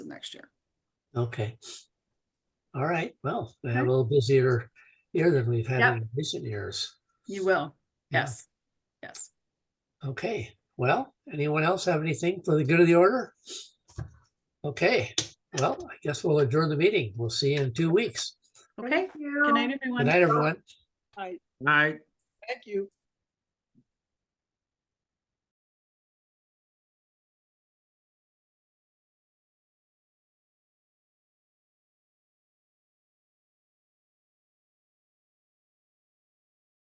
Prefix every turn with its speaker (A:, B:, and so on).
A: next year.
B: Okay. All right, well, we have a little busier year than we've had
A: Yep.
B: in recent years.
A: You will.
B: Yeah.
A: Yes. Yes.
B: Okay, well, anyone else have anything for the good of the order? Okay, well, I guess we'll adjourn the meeting. We'll see you in two weeks.
A: Okay.
C: Thank you.
A: Good night, everyone.
B: Good night, everyone.
D: Night.
C: Thank you.